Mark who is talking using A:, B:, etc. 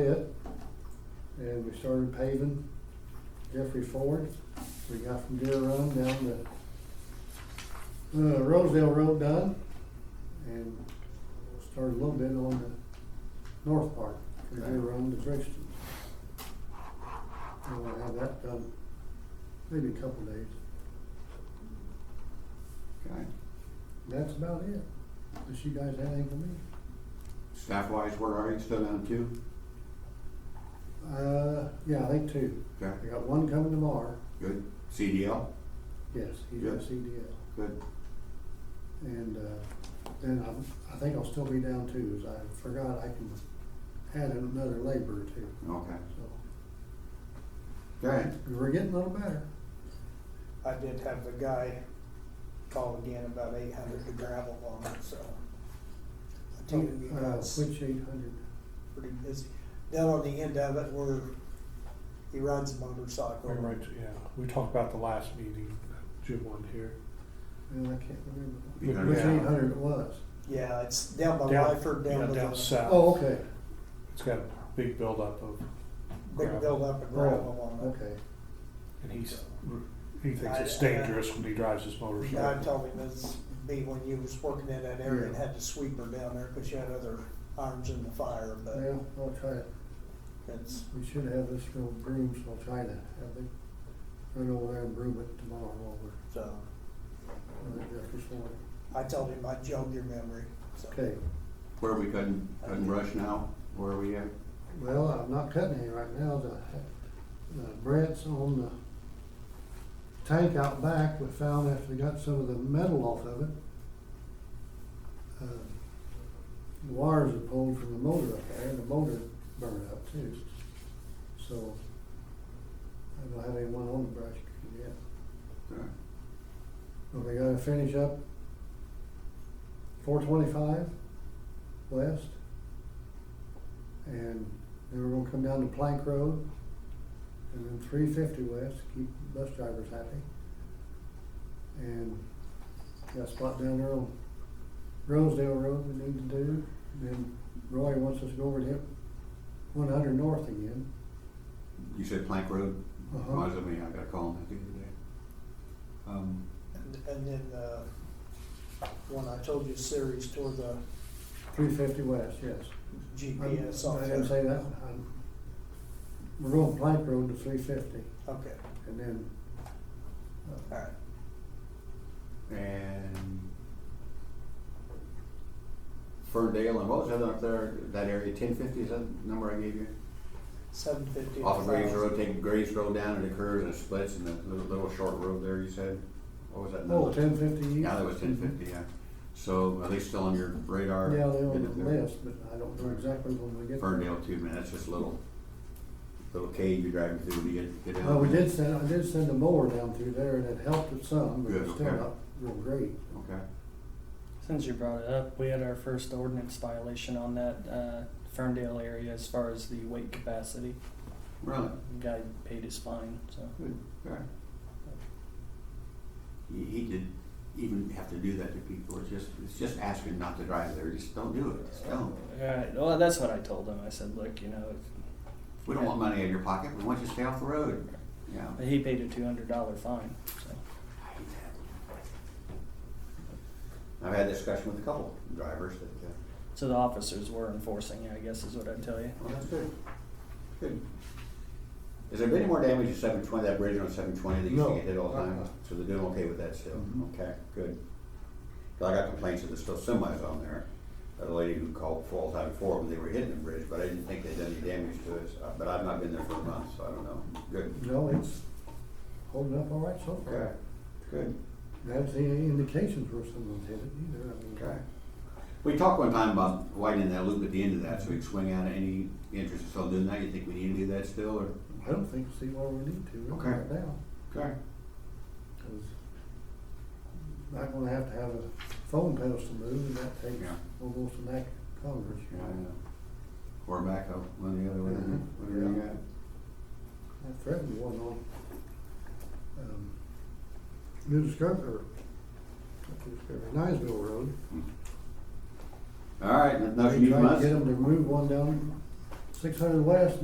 A: pit, and we started paving Jeffrey Ford. We got from Deer Run down to, uh, Rosedale Road done, and started a little bit on the north part, from Deer Run to Brixton. And we'll have that done, maybe a couple days.
B: Okay.
A: That's about it, unless you guys have anything for me.
B: Staff wise, where are you? Still down two?
A: Uh, yeah, I think two.
B: Okay,
A: I got one coming tomorrow,
B: good. CDL?
A: yes, he's E
B: Good.
A: got CDL.
B: Good.
A: And uh, then I'm, I think I'll still be down too, as I forgot I can add in another laborer too,
B: Okay.
A: so
B: Okay.
A: we're getting a little better.
C: I did have the guy call again about eight hundred to gravel on it, so. I told him you
D: Oh,
A: Uh,
C: guys
A: Which eight hundred,
C: pretty busy. Down on the end of it where he rides a motorcycle.
D: We Right, yeah, we talked about the last meeting, Jim one here.
A: well, I can't remember.
B: You
A: Which
B: gotta-
A: eight hundred it was?
C: Yeah, it's down by
D: Down-
C: Lyford,
D: yeah,
C: down by
D: Down
C: the
D: south,
A: Oh, okay,
D: it's got a big buildup of,
C: big buildup of gravel
D: Oh,
C: on it.
A: okay.
D: and he's, he thinks
C: I- I-
D: it's dangerous when he drives his
C: I
D: motorcycle.
C: told him it's be when you was working in that area and
A: Yeah.
C: had to sweep her down there because you had other irons in the fire, but
A: Well, I'll try it.
C: it's,
A: We should have this little broom, so I'll try to have them run over there and broom it tomorrow while we're,
C: so.
A: while we're just this morning.
C: I told him I jogged your memory, so.
A: Okay,
B: Where we couldn't, couldn't brush now? Where are we at?
A: well, I'm not cutting any right now, the, the Brett's on the tank out back, we found after they got some of the metal off of it. uh, The wires are pulled from the motor up there, and the motor burned up too, so I don't have anyone on the brush yet.
B: Okay.
A: Well, we gotta finish up four twenty-five west. And then we're gonna come down to Plank Road. And then three fifty west, keep bus drivers happy. And got a spot down there on Rosedale Road we need to do. Then Roy wants us to go over to him, one hundred north again.
B: You said Plank Road?
A: Uh-huh.
B: Reminds of me, I gotta call him the other day. Um,
C: And, and then, uh, one I told you series toward the
A: Three fifty west, yes. I'm-
C: GPS off
A: I didn't
C: there.
A: say that. I'm- um, We're going Plank Road to three fifty.
C: Okay,
A: And then, uh,
C: alright.
B: and Ferndale and what was the other up there, that area, ten fifty, is that the number I gave you?
C: Seven fifty.
B: Off of Graves Road, take Graves Road down and it curves and it splits and the little, little short road there, you said? What was that number?
A: oh, ten fifty east.
B: Yeah, that was ten fifty, yeah. So are they still on your radar?
A: Yeah, they're
B: Get
A: on
B: it
A: the
B: there.
A: list, but I don't know exactly when we get. there.
B: Ferndale too, man, that's just a little, little cave you're driving through to get, get down.
A: Well, Oh, we did send, I did send a mower down through there and it helped it some, but it's
B: Good,
A: still
B: okay.
A: not real great.
B: Okay,
E: Since you brought it up, we had our first ordinance violation on that uh, Ferndale area as far as the weight capacity.
B: really,
E: The guy paid his fine, so
B: good, okay. He, he did even have to do that to people, it's just, it's just asking not to drive there, just don't do it, just don't.
E: All right. Well, that's what I told him. I said, look, you know, if,
B: We don't want money out of your pocket, we want you to stay off the road, yeah.
E: but he paid a two hundred dollar fine. So
B: I hate that. I've had a discussion with a couple drivers that, uh,
E: so the officers were enforcing it. I guess is what I tell you.
B: Well, that's good. Good. Has there been any more damage to seven twenty, that bridge on seven twenty that used to
A: No.
B: get hit all the time?
A: Uh-uh.
B: So they're doing okay with that still?
A: Mhm.
B: Okay, good. 'Cause I got complaints that there's still semis on there. That lady who called fall time before when they were hitting the bridge, but I didn't think they'd done any damage to it. Uh, But I've not been there for a month, so I don't know. Good.
A: No, it's holding up all right so
B: Okay,
A: far.
B: good.
A: I haven't seen any indications where someone's hit it either, I mean.
B: Okay. We talked one time about widening that loop at the end of that, so we could swing out any interest in still doing that. You think we need to do that still, or?
A: I don't think, see where we need to really
B: Okay.
A: right now,
B: Okay.
A: cause not gonna have to have a phone pedestal moved and that takes
B: Yeah.
A: almost an act of Congress.
B: Yeah, I know. Or backup, one or the other, whatever,
A: Mhm.
B: whatever you got.
A: I threatened one on, um, New Discover, not New Discovery, Niceville Road.
B: All right, nothing
A: They
B: you
A: tried to
B: must,
A: Get them to move one down six hundred west,